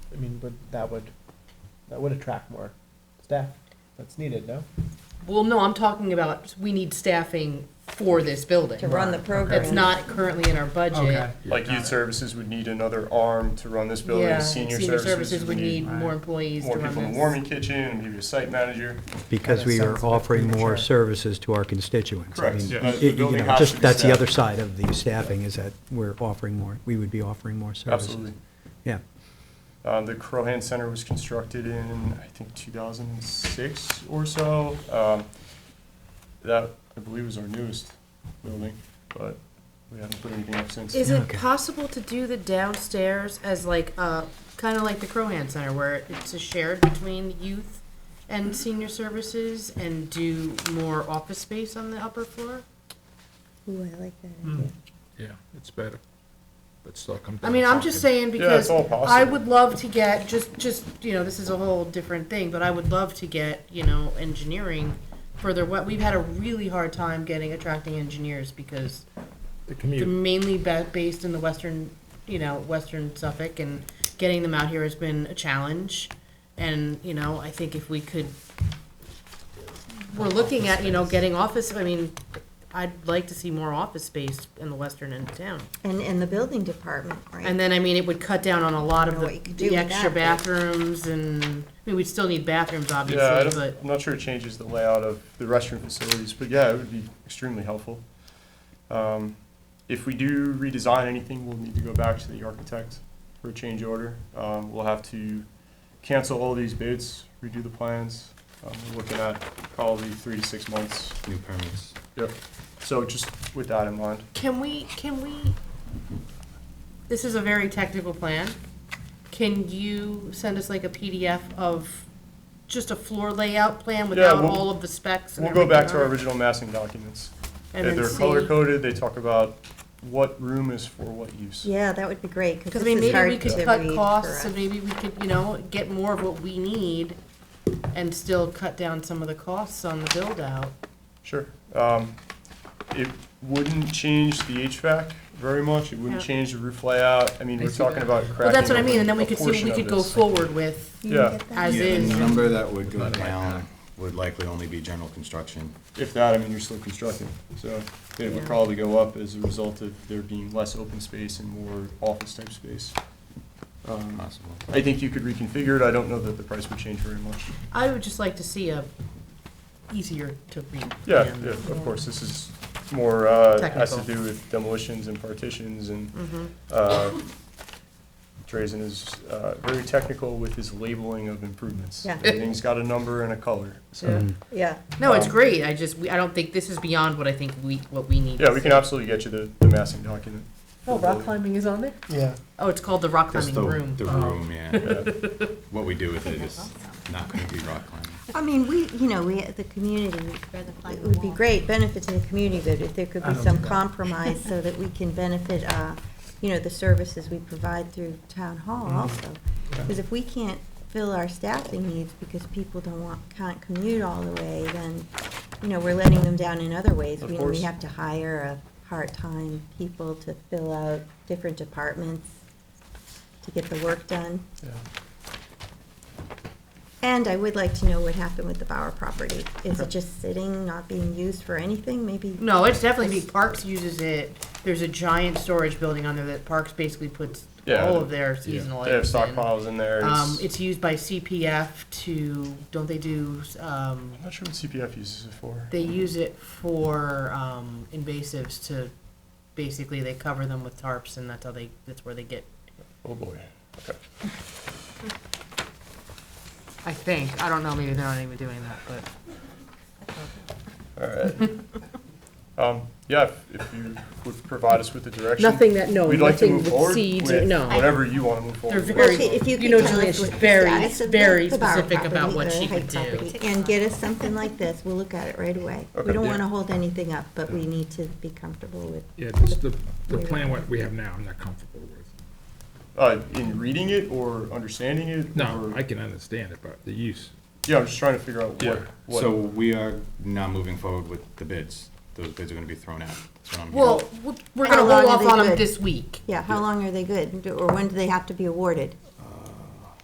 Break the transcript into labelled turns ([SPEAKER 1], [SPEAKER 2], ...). [SPEAKER 1] I mean, but that would, that would attract more staff that's needed, no?
[SPEAKER 2] Well, no, I'm talking about, we need staffing for this
[SPEAKER 3] to
[SPEAKER 2] building.
[SPEAKER 3] run the program.
[SPEAKER 2] That's not currently in our budget.
[SPEAKER 4] Okay.
[SPEAKER 5] Like youth services would need another arm to run this building,
[SPEAKER 2] Yeah,
[SPEAKER 5] senior services would need
[SPEAKER 2] more employees to
[SPEAKER 5] more
[SPEAKER 2] run
[SPEAKER 5] people in the
[SPEAKER 2] this.
[SPEAKER 5] warming kitchen, maybe a site manager.
[SPEAKER 6] because we are offering more services to our constituents. I
[SPEAKER 5] Correct.
[SPEAKER 6] mean,
[SPEAKER 5] Yeah.
[SPEAKER 6] you-
[SPEAKER 5] But the
[SPEAKER 6] you
[SPEAKER 5] building
[SPEAKER 6] know,
[SPEAKER 5] has
[SPEAKER 6] just-
[SPEAKER 5] to be
[SPEAKER 6] That's the
[SPEAKER 5] staffed.
[SPEAKER 6] other side of the staffing, is that we're offering more, we would be offering more services.
[SPEAKER 5] Absolutely.
[SPEAKER 6] Yeah,
[SPEAKER 5] Uh, the Crohan Center was constructed in, I think, 2006 or so. Um, that, I believe, was our newest building, but we haven't put anything up since.
[SPEAKER 2] Is it
[SPEAKER 6] Okay.
[SPEAKER 2] possible to do the downstairs as like, uh, kind of like the Crohan Center where it's a shared between youth and senior services and do more office space on the upper floor?
[SPEAKER 3] Ooh, I like that idea.
[SPEAKER 4] Yeah, it's better. But still come
[SPEAKER 2] I
[SPEAKER 4] down.
[SPEAKER 2] mean, I'm just
[SPEAKER 4] talking.
[SPEAKER 2] saying
[SPEAKER 5] Yeah,
[SPEAKER 2] because
[SPEAKER 5] it's all
[SPEAKER 2] I
[SPEAKER 5] possible.
[SPEAKER 2] would love to get, just, just, you know, this is a whole different thing, but I would love to get, you know, engineering further, what, we've had a really hard time getting, attracting engineers because
[SPEAKER 1] The
[SPEAKER 2] they're
[SPEAKER 1] commute.
[SPEAKER 2] mainly ba- based in the western, you know, western Suffolk, and getting them out here has been a challenge. And you know, I think if we could, we're looking at you know getting office. I mean, I'd like to see more office space in the western end of town.
[SPEAKER 3] And, and the building department, right?
[SPEAKER 2] And then I mean, it would cut down on a lot of
[SPEAKER 3] Know
[SPEAKER 2] the,
[SPEAKER 3] what you could do
[SPEAKER 2] the
[SPEAKER 3] with
[SPEAKER 2] extra
[SPEAKER 3] that, but-
[SPEAKER 2] bathrooms, and I mean, we'd still need bathrooms, obviously,
[SPEAKER 5] Yeah, I don't-
[SPEAKER 2] but
[SPEAKER 5] I'm not sure it changes the layout of the restroom facilities, but yeah, it would be extremely helpful. Um, If we do redesign anything, we'll need to go back to the architect for a change order. Um, We'll have to cancel all these bids, redo the plans. Um, We're looking at probably three to six months.
[SPEAKER 7] New permits.
[SPEAKER 5] Yep. So just with that in mind.
[SPEAKER 2] Can we, can we, this is a very technical plan. Can you send us like a PDF of just a floor layout plan without
[SPEAKER 5] we'll-
[SPEAKER 2] all of the specs and
[SPEAKER 5] We'll go back to our
[SPEAKER 2] everything on it?
[SPEAKER 5] original massing documents.
[SPEAKER 2] And
[SPEAKER 5] They're
[SPEAKER 2] then see-
[SPEAKER 5] color-coded, they talk about what room is for what use.
[SPEAKER 3] Yeah, that would be great,
[SPEAKER 2] Because
[SPEAKER 3] because
[SPEAKER 2] I mean,
[SPEAKER 3] this
[SPEAKER 2] maybe
[SPEAKER 3] is
[SPEAKER 2] we
[SPEAKER 3] hard
[SPEAKER 2] could
[SPEAKER 3] to
[SPEAKER 2] cut
[SPEAKER 3] read
[SPEAKER 2] costs
[SPEAKER 3] for
[SPEAKER 2] and
[SPEAKER 3] us.
[SPEAKER 2] maybe we could, you know, get more of what we need and still cut down some of the costs on the build out.
[SPEAKER 5] Sure. Um, It wouldn't change the HVAC very much. It wouldn't
[SPEAKER 2] Yeah.
[SPEAKER 5] change the roof layout. I mean,
[SPEAKER 4] I
[SPEAKER 5] we're
[SPEAKER 4] see
[SPEAKER 5] talking
[SPEAKER 4] that.
[SPEAKER 5] about
[SPEAKER 2] Well, that's what I
[SPEAKER 5] cracking
[SPEAKER 2] mean, and then we
[SPEAKER 5] a
[SPEAKER 2] could see what
[SPEAKER 5] portion
[SPEAKER 2] we
[SPEAKER 5] of
[SPEAKER 2] could go
[SPEAKER 5] this.
[SPEAKER 2] forward with
[SPEAKER 3] You can
[SPEAKER 5] Yeah.
[SPEAKER 3] get that?
[SPEAKER 2] as
[SPEAKER 7] Yeah,
[SPEAKER 2] is.
[SPEAKER 7] The number that would go
[SPEAKER 4] Not like
[SPEAKER 7] down would likely only be general construction.
[SPEAKER 5] If that, I mean, you're still constructing. So it would
[SPEAKER 2] Yeah.
[SPEAKER 5] probably go up as a result of there being less open space and more office-type space. Um,
[SPEAKER 7] Possible.
[SPEAKER 5] I think you could reconfigure it. I don't know that the price would change very much.
[SPEAKER 2] I would just like to see a easier to read.
[SPEAKER 5] Yeah,
[SPEAKER 2] plan.
[SPEAKER 5] yeah, of course. This is more, uh, has to
[SPEAKER 2] Technical.
[SPEAKER 5] do with demolitions and partitions and
[SPEAKER 8] Mm-hmm.
[SPEAKER 5] Uh, Drazen is uh, very technical with his labeling of improvements.
[SPEAKER 3] Yeah.
[SPEAKER 5] Everything's got a number and a color.
[SPEAKER 2] Yeah.
[SPEAKER 5] So,
[SPEAKER 3] Yeah,
[SPEAKER 2] No, it's
[SPEAKER 5] Um,
[SPEAKER 2] great. I just, we- I don't think, this is beyond what I think we, what we need.
[SPEAKER 5] yeah,
[SPEAKER 2] to
[SPEAKER 5] we
[SPEAKER 2] see.
[SPEAKER 5] can absolutely get you the, the massing document.
[SPEAKER 2] Oh, rock climbing is on there?
[SPEAKER 1] Yeah.
[SPEAKER 2] Oh, it's called the rock
[SPEAKER 7] Just
[SPEAKER 2] climbing
[SPEAKER 7] the,
[SPEAKER 2] room.
[SPEAKER 7] the
[SPEAKER 2] Oh.
[SPEAKER 7] room, yeah. What we do with it is not gonna be rock climbing.
[SPEAKER 3] I mean, we, you know, we, the community, it would be great benefit to the community, but if there could be some compromise so that we can benefit, uh, you know, the services we provide through town hall
[SPEAKER 5] Mm-hmm.
[SPEAKER 3] also. Because if we can't fill our staffing needs because people don't want, can't commute all the way, then, you know, we're letting them down in other ways.
[SPEAKER 5] Of
[SPEAKER 3] We- We
[SPEAKER 5] course.
[SPEAKER 3] have to hire a part-time people to fill out different departments to get the work done. And I would like to know what happened with the Bauer property. Is it just sitting, not being used for anything, maybe?
[SPEAKER 2] No, it's definitely, big. Parks uses it. There's a giant storage building on there that Parks basically puts
[SPEAKER 5] Yeah,
[SPEAKER 2] all of their seasonal
[SPEAKER 5] They have
[SPEAKER 2] items in.
[SPEAKER 5] stockpiles in there.
[SPEAKER 2] Um,
[SPEAKER 5] It's-
[SPEAKER 2] it's used by CPF to, don't they do, um,
[SPEAKER 5] I'm not sure what CPF uses it for.
[SPEAKER 2] they use it for, um, invasives to, basically, they cover them with tarps and that's how they, that's where they get
[SPEAKER 5] Oh, boy. Okay.
[SPEAKER 2] I think. I don't know. Maybe they're not even doing that, but
[SPEAKER 5] All right. Um, yeah, if- if you would provide us with the direction.
[SPEAKER 8] Nothing that, no,
[SPEAKER 5] We'd like to
[SPEAKER 8] nothing
[SPEAKER 5] move
[SPEAKER 8] with
[SPEAKER 5] forward
[SPEAKER 8] seeds,
[SPEAKER 5] with
[SPEAKER 8] no.
[SPEAKER 5] whatever you want to move forward.
[SPEAKER 2] They're
[SPEAKER 5] with.
[SPEAKER 2] very-
[SPEAKER 3] Well, see, if
[SPEAKER 2] you
[SPEAKER 3] could
[SPEAKER 2] know,
[SPEAKER 3] tell
[SPEAKER 2] Julia,
[SPEAKER 3] us
[SPEAKER 2] she's
[SPEAKER 3] what the
[SPEAKER 2] very-
[SPEAKER 3] status of the-
[SPEAKER 2] very
[SPEAKER 3] the Bauer
[SPEAKER 2] specific about
[SPEAKER 3] property,
[SPEAKER 2] what
[SPEAKER 3] the
[SPEAKER 2] she could
[SPEAKER 3] Hyde
[SPEAKER 2] do.
[SPEAKER 3] property, And get us something like this, we'll look at it right away.
[SPEAKER 5] Okay.
[SPEAKER 3] We don't
[SPEAKER 4] Yeah.
[SPEAKER 3] want to hold anything up, but we need to be comfortable with.
[SPEAKER 4] Yeah, just the, the plan what we have now, I'm not comfortable with.
[SPEAKER 5] Uh, in reading it or understanding it?
[SPEAKER 4] No,
[SPEAKER 5] or-
[SPEAKER 4] I can understand it, but the use.
[SPEAKER 5] Yeah, I'm just trying to figure out
[SPEAKER 4] Yeah.
[SPEAKER 5] what,
[SPEAKER 7] So
[SPEAKER 5] what,
[SPEAKER 7] we are not moving forward with the bids. Those bids are gonna be thrown out. That's what I'm hearing.
[SPEAKER 2] well, we're
[SPEAKER 3] How
[SPEAKER 2] gonna
[SPEAKER 3] long
[SPEAKER 2] hold
[SPEAKER 3] are
[SPEAKER 2] off
[SPEAKER 3] they
[SPEAKER 2] on them
[SPEAKER 3] good?
[SPEAKER 2] this week.
[SPEAKER 3] Yeah, how long are they good, or when do they have to be awarded?